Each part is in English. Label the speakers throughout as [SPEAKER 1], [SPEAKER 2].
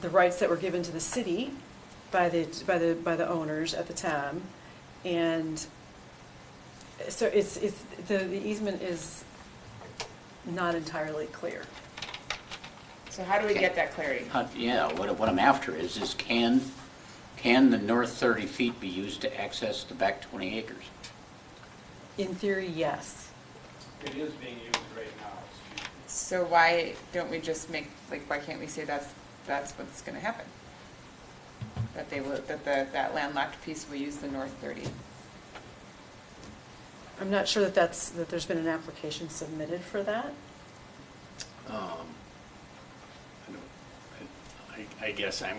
[SPEAKER 1] the rights that were given to the city by the, by the, by the owners at the time. And so it's, it's, the the easement is not entirely clear.
[SPEAKER 2] So how do we get that clarity?
[SPEAKER 3] Uh, Yeah, what what I'm after is, is can, can the north 30 feet be used to access the back 20 acres?
[SPEAKER 1] In theory, yes.
[SPEAKER 4] It is being used right now, excuse me.
[SPEAKER 2] So why don't we just make, like, why can't we say that's, that's what's gonna happen? That they will, that the, that landlocked piece will use the north thirty?
[SPEAKER 1] I'm not sure that that's, that there's been an application submitted for that.
[SPEAKER 5] Um, I don't- I I guess I'm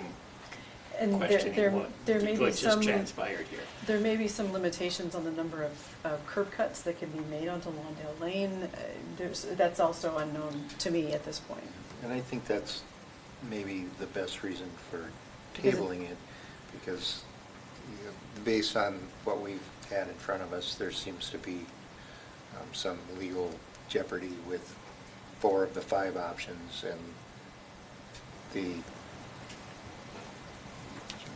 [SPEAKER 1] And there-
[SPEAKER 5] questioning
[SPEAKER 1] there-
[SPEAKER 5] what,
[SPEAKER 1] There may be
[SPEAKER 5] what just
[SPEAKER 1] some,
[SPEAKER 5] transpired here.
[SPEAKER 1] there may be some limitations on the number of of curb cuts that can be made onto Lawndale Lane. Uh, There's, that's also unknown to me at this point.
[SPEAKER 6] And I think that's maybe the best reason for
[SPEAKER 1] Because it-
[SPEAKER 6] tabling it, because you know, based on what we've had in front of us, there seems to be um, some legal jeopardy with four of the five options and the,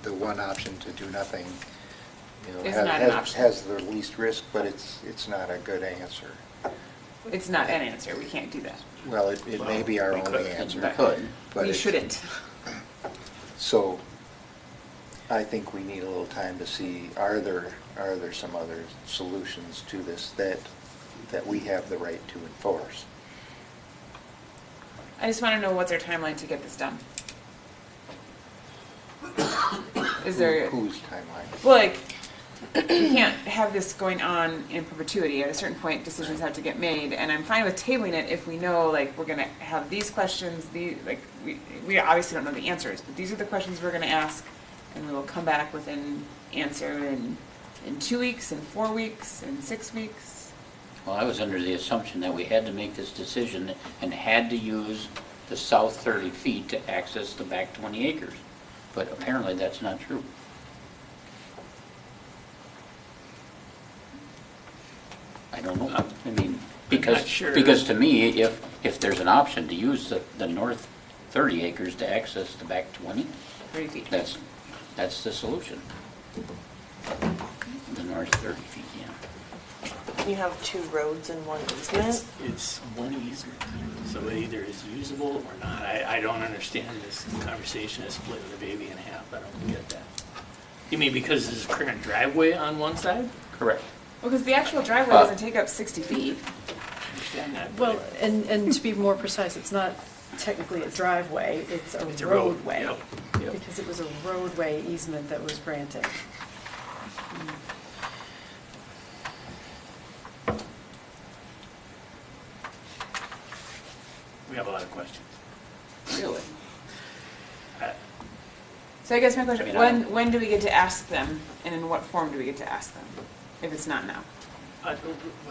[SPEAKER 6] the one option to do nothing, you know,
[SPEAKER 2] Is
[SPEAKER 6] ha-
[SPEAKER 2] not an
[SPEAKER 6] has-
[SPEAKER 2] option.
[SPEAKER 6] has the least risk, but it's, it's not a good answer.
[SPEAKER 2] It's not an answer, we can't do that.
[SPEAKER 6] Well, it it may be our
[SPEAKER 5] Well, we
[SPEAKER 6] only
[SPEAKER 5] could.
[SPEAKER 6] answer.
[SPEAKER 3] We could.
[SPEAKER 6] but
[SPEAKER 2] We
[SPEAKER 6] it's-
[SPEAKER 2] shouldn't.
[SPEAKER 6] So I think we need a little time to see, are there, are there some other solutions to this that, that we have the right to enforce?
[SPEAKER 2] I just wanna know what's our timeline to get this done? Is there?
[SPEAKER 6] Who- Whose timeline?
[SPEAKER 2] Well, like, you can't have this going on in perpetuity. At a certain point, decisions have to get made, and I'm fine with tabling it if we know, like, we're gonna have these questions, the, like, we, we obviously don't know the answers, but these are the questions we're gonna ask, and we will come back with an answer in, in two weeks, in four weeks, in six weeks.
[SPEAKER 3] Well, I was under the assumption that we had to make this decision and had to use the south 30 feet to access the back 20 acres, but apparently that's not true. I don't know, I mean, because,
[SPEAKER 5] not sure.
[SPEAKER 3] because to me, if, if there's an option to use the, the north 30 acres to access the back 20,
[SPEAKER 2] Thirty feet.
[SPEAKER 3] that's, that's the solution. The north 30 feet, yeah.
[SPEAKER 7] You have two roads and one
[SPEAKER 5] It's,
[SPEAKER 7] easement?
[SPEAKER 5] it's one easement, so it either is usable or not. I, I don't understand this conversation is splitting the baby in half, I don't get that. You mean because there's a current driveway on one side?
[SPEAKER 3] Correct.
[SPEAKER 2] Well, because the actual driveway
[SPEAKER 3] Uh,
[SPEAKER 2] doesn't take up sixty feet.
[SPEAKER 5] I understand that. but
[SPEAKER 1] Well, and, and to be more precise, it's not technically a driveway, it's
[SPEAKER 5] It's
[SPEAKER 1] a
[SPEAKER 5] a road,
[SPEAKER 1] roadway.
[SPEAKER 5] yep, yep.
[SPEAKER 1] Because it was a roadway easement that was granted.
[SPEAKER 5] We have a lot of questions.
[SPEAKER 3] Really?
[SPEAKER 5] I-
[SPEAKER 2] So I guess my
[SPEAKER 3] I
[SPEAKER 2] question,
[SPEAKER 3] mean, I
[SPEAKER 2] when,
[SPEAKER 3] don't-
[SPEAKER 2] when do we get to ask them, and in what form do we get to ask them, if it's not now?
[SPEAKER 5] I- Uh,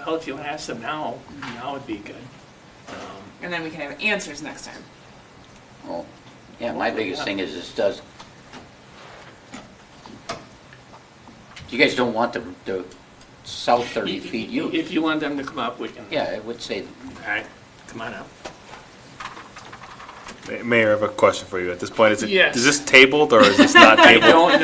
[SPEAKER 5] Well, if you want to ask them now, now would be good. Um,
[SPEAKER 2] And then we can have answers next time.
[SPEAKER 3] Well, yeah, my biggest thing is this does, you guys don't want the, the south 30 feet
[SPEAKER 5] If
[SPEAKER 3] used.
[SPEAKER 5] you want them to come up, we can.
[SPEAKER 3] Yeah, I would say,
[SPEAKER 5] All right, come on up.
[SPEAKER 8] Ma- Mayor, I have a question for you. At this point, is it,
[SPEAKER 5] Yes.
[SPEAKER 8] is this tabled or is this not
[SPEAKER 5] I
[SPEAKER 8] tabled?
[SPEAKER 5] don't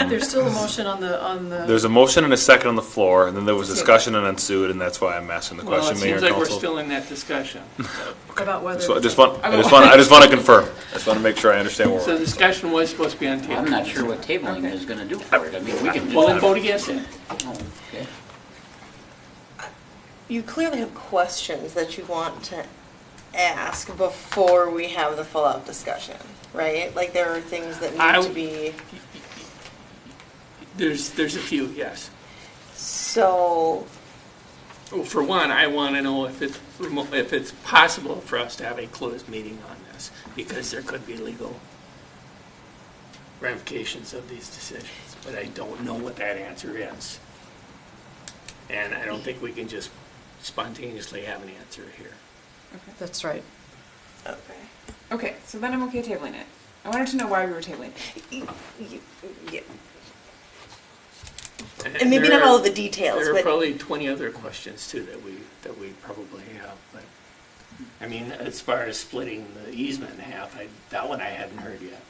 [SPEAKER 5] know.
[SPEAKER 1] There's still a motion on the, on the.
[SPEAKER 8] There's a motion and a second on the floor, and then there was
[SPEAKER 2] Table.
[SPEAKER 8] discussion and ensued, and that's why I'm asking the
[SPEAKER 5] Well, it
[SPEAKER 8] question, Mayor
[SPEAKER 5] seems
[SPEAKER 8] and
[SPEAKER 5] like we're
[SPEAKER 8] Council.
[SPEAKER 5] still in that discussion.
[SPEAKER 1] About whether.
[SPEAKER 8] So I just want, I just want, I just want to confirm. I just want to make sure I understand where
[SPEAKER 5] So the
[SPEAKER 8] we're at.
[SPEAKER 5] discussion was supposed to be on table.
[SPEAKER 3] I'm not sure what tabling is gonna do for it. I mean, we can
[SPEAKER 5] Well, then
[SPEAKER 3] just.
[SPEAKER 5] vote against it.
[SPEAKER 3] Oh, okay.
[SPEAKER 7] You clearly have questions that you want to ask before we have the full-out discussion, right? Like, there are things that
[SPEAKER 5] I-
[SPEAKER 7] need to be,
[SPEAKER 5] There's, there's a few, yes.
[SPEAKER 7] so,
[SPEAKER 5] Well, For one, I want to know if it's, remo- if it's possible for us to have a closed meeting on this, because there could be legal ramifications of these decisions, but I don't know what that answer is. And I don't think we can just spontaneously have an answer here.
[SPEAKER 1] That's right.
[SPEAKER 7] okay.
[SPEAKER 2] Okay, so then I'm okay tabling it. I wanted to know why we were tabling it.
[SPEAKER 7] You- yeah. And maybe
[SPEAKER 5] there
[SPEAKER 7] not
[SPEAKER 5] are-
[SPEAKER 7] all of the details,
[SPEAKER 5] There are
[SPEAKER 7] but
[SPEAKER 5] probably 20 other questions too that we, that we probably have, but, I mean, as far as splitting the easement in half, I, that one I hadn't heard yet.